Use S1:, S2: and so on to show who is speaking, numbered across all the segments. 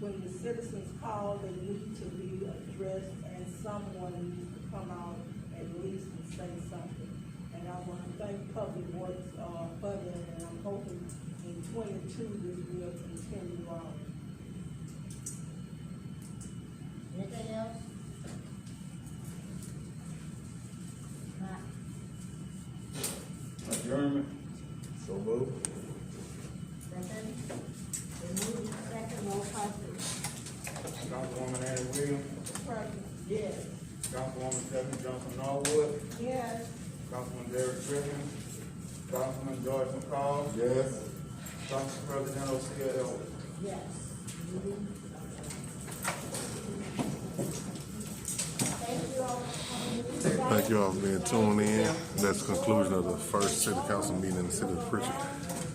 S1: when the citizens call, they need to be addressed and someone needs to come out at least and say something. And I want to thank Public Works, uh, for that, and I'm hoping in twenty-two this will continue on.
S2: Anything else? Not,
S3: Adjournment.
S4: So move.
S2: second, the move, second, roll call please.
S3: Councilwoman Annie Williams,
S1: President, yes.
S3: Councilwoman Stephanie Johnson Norwood,
S1: Yes.
S3: Councilman Derek Griffin, Councilman George McCall,
S4: Yes.
S3: Council President Osia Ellis.
S2: Yes. Thank you all for coming.
S5: Thank you all for being tuned in. That's the conclusion of the first city council meeting in the city of Pritchard.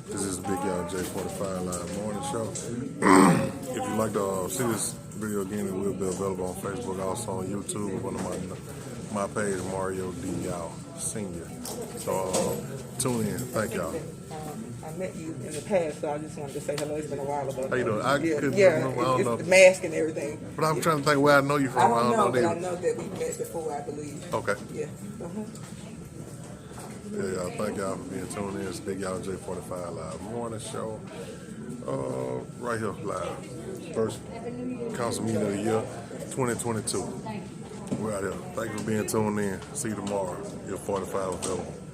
S5: This is Big Y'all J forty-five live morning show. If you like to uh, see this video again, it will be available on Facebook, also on YouTube, one of my, my page, Mario D. Y'all Senior. So, uh, tune in. Thank y'all.
S6: Um, I met you in the past, so I just wanted to say hello. It's been a while ago.
S5: How you doing? I
S6: yeah,
S5: couldn't
S6: yeah,
S5: remember. I don't
S6: it's
S5: know.
S6: the mask and everything.
S5: But I'm trying to think where I know you
S6: I
S5: from.
S6: don't know, but I
S5: that.
S6: know that we met before, I believe.
S5: Okay.
S6: Yeah. Uh-huh.
S5: Yeah, y'all, uh, thank y'all for being tuned in. It's Big Y'all J45 Live Morning Show. Uh, right here, live. First council meeting of the year, 2022. We're out here. Thank you for being tuned in. See you tomorrow. Your 45 available.